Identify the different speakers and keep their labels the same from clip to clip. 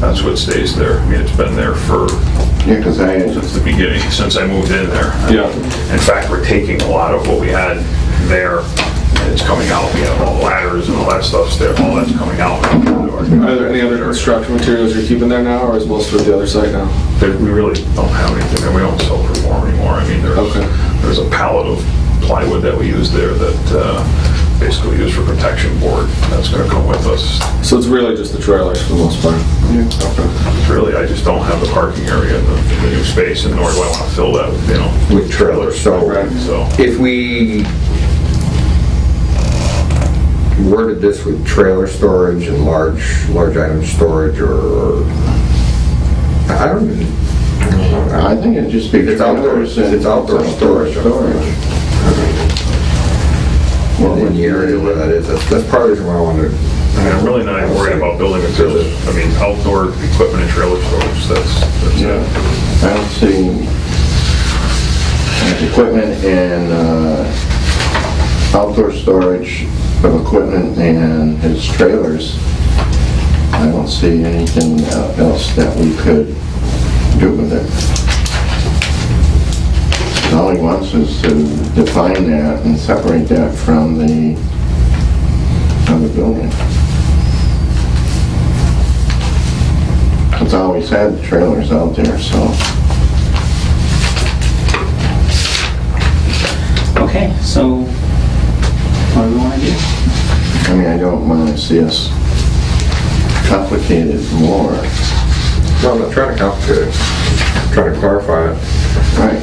Speaker 1: That's what stays there. I mean, it's been there for,
Speaker 2: Yeah, because I,
Speaker 1: since the beginning, since I moved in there.
Speaker 2: Yeah.
Speaker 1: In fact, we're taking a lot of what we had there, and it's coming out. We have all the ladders and all that stuff's there, all that's coming out.
Speaker 3: Are there any other construction materials you're keeping there now, or is most of the other site now?
Speaker 1: But we really don't have anything, and we don't sell for more anymore. I mean, there's,
Speaker 3: Okay.
Speaker 1: there's a pallet of plywood that we use there that uh, basically used for protection board. That's gonna come with us.
Speaker 3: So it's really just the trailers for the most part? Yeah.
Speaker 1: It's really, I just don't have the parking area in the in the new space, and nor do I wanna fill that, with, you know,
Speaker 2: with trailers, so
Speaker 3: Right.
Speaker 1: so.
Speaker 2: if we worded this with trailer storage and large, large item storage or, I don't even, I don't know.
Speaker 4: I think it'd just be
Speaker 2: It's outdoor,
Speaker 4: trailers and...
Speaker 2: it's outdoor storage.
Speaker 4: Storage.
Speaker 2: Well, in the area where that is, that's, that's part of the reason why I wanted.
Speaker 1: I mean, I'm really not even worried about building materials. I mean, outdoor equipment and trailer storage, that's, that's it.
Speaker 4: I don't see uh, equipment and uh, outdoor storage of equipment and his trailers. I don't see anything else that we could do with it. All he wants is to define that and separate that from the other building. It's always had trailers out there, so.
Speaker 5: Okay, so what do we want to do?
Speaker 4: I mean, I don't want to see us complicated more.
Speaker 2: No, I'm not trying to complicate it, I'm trying to clarify it.
Speaker 4: Right.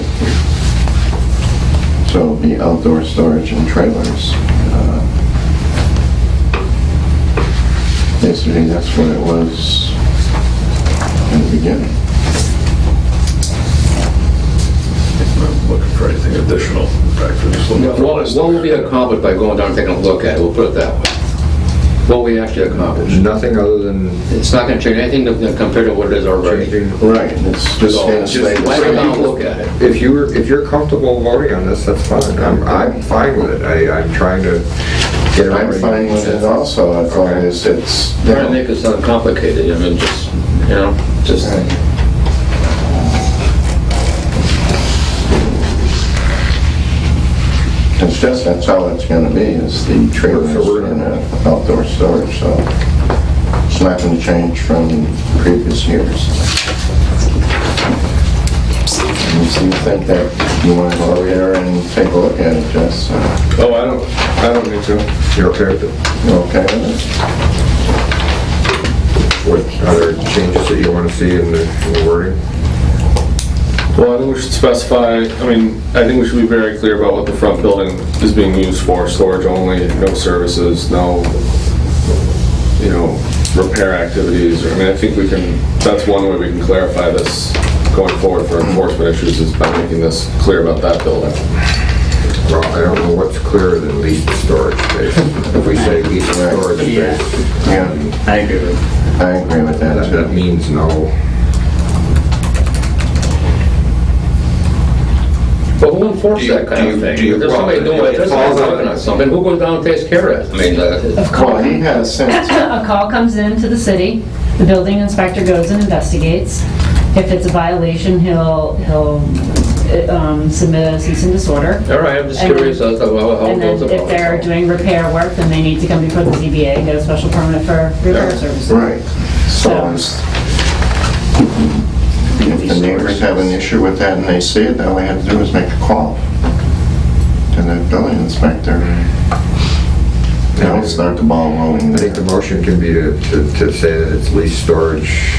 Speaker 4: So the outdoor storage and trailers. uh, Basically, that's what it was in the beginning.
Speaker 1: I'm not looking for anything additional. In fact, we're just looking
Speaker 6: What
Speaker 1: for a list.
Speaker 6: what will be accomplished by going down and taking a look at it, we'll put it that way? What we actually accomplish?
Speaker 2: Nothing other than
Speaker 6: It's not gonna change anything to- compared to what it is already.
Speaker 2: changing
Speaker 4: Right, it's just
Speaker 6: So,
Speaker 4: gonna stay
Speaker 6: just
Speaker 4: the
Speaker 6: why don't we
Speaker 4: same.
Speaker 6: go look at it?
Speaker 2: If you're, if you're comfortable voting on this, that's fine. I'm, I'm fine with it. I, I'm trying to get it
Speaker 4: I'm
Speaker 2: right.
Speaker 4: fine with it also, as long as it's...
Speaker 6: Trying to make it sound complicated, I mean, just, you know, just,
Speaker 4: Right. It's just, that's all it's gonna be, is the trailers
Speaker 2: So we're
Speaker 4: and
Speaker 2: gonna-
Speaker 4: uh, outdoor storage, so it's not gonna change from previous years. And so you think that you wanna go over there and take a look at it, Jess? uh,
Speaker 3: Oh, I don't, I don't need to.
Speaker 2: You're okay with it?
Speaker 4: You okay with it?
Speaker 2: What other changes that you want to see in the in the wording?
Speaker 3: Well, I think we should specify, I mean, I think we should be very clear about what the front building is being used for, storage only, no services, no, you know, repair activities, or, I mean, I think we can, that's one way we can clarify this going forward for enforcement issues, is by making this clear about that building.
Speaker 2: Well, I don't know what's clearer than lease and storage space. If we say lease and storage space,
Speaker 4: Yeah,
Speaker 5: I agree with
Speaker 4: I agree with that
Speaker 2: that, that
Speaker 4: too.
Speaker 2: means no.
Speaker 6: but who enforces
Speaker 2: Do you-
Speaker 6: that kind of
Speaker 2: do you-
Speaker 6: thing?
Speaker 2: do you-
Speaker 6: If there's somebody doing it, if there's somebody working on something, who goes down and takes care of it? I mean, uh,
Speaker 4: Well, he has since,
Speaker 7: A call comes in to the city, the building inspector goes and investigates. If it's a violation, he'll, he'll uh, um, submit a cease and disorder.
Speaker 6: all right, I'm just
Speaker 7: And-
Speaker 6: curious as to how how it
Speaker 7: And
Speaker 6: goes
Speaker 7: then
Speaker 6: about
Speaker 7: if they're
Speaker 6: it. so.
Speaker 7: doing repair work, then they need to come before the ZBA and get a special permit for repair services.
Speaker 4: right, so
Speaker 7: So-
Speaker 4: it's... If the neighbors have an issue with that and they see it, then all they have to do is make a call to the building inspector. That'll start the ball rolling
Speaker 2: I think the
Speaker 4: there.
Speaker 2: motion can be to, to to say that it's lease storage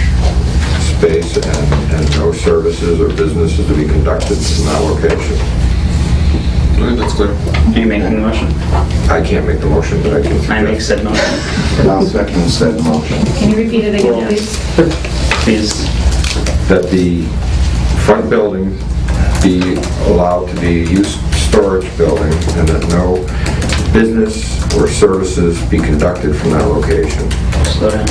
Speaker 2: space and, and no services or businesses to be conducted in that location.
Speaker 3: I think that's clear.
Speaker 5: you. Are you making the motion?
Speaker 2: I can't make the motion, but I can
Speaker 5: I make
Speaker 2: suggest.
Speaker 5: said motion.
Speaker 4: I'll second said motion.
Speaker 7: Can you repeat it again,
Speaker 5: Yeah.
Speaker 7: please?
Speaker 5: Please,
Speaker 2: That the front building be allowed to be used storage building and that no business or services be conducted from that location.
Speaker 5: slow down.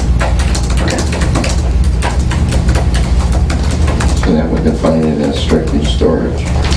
Speaker 4: So that would define it as strictly storage.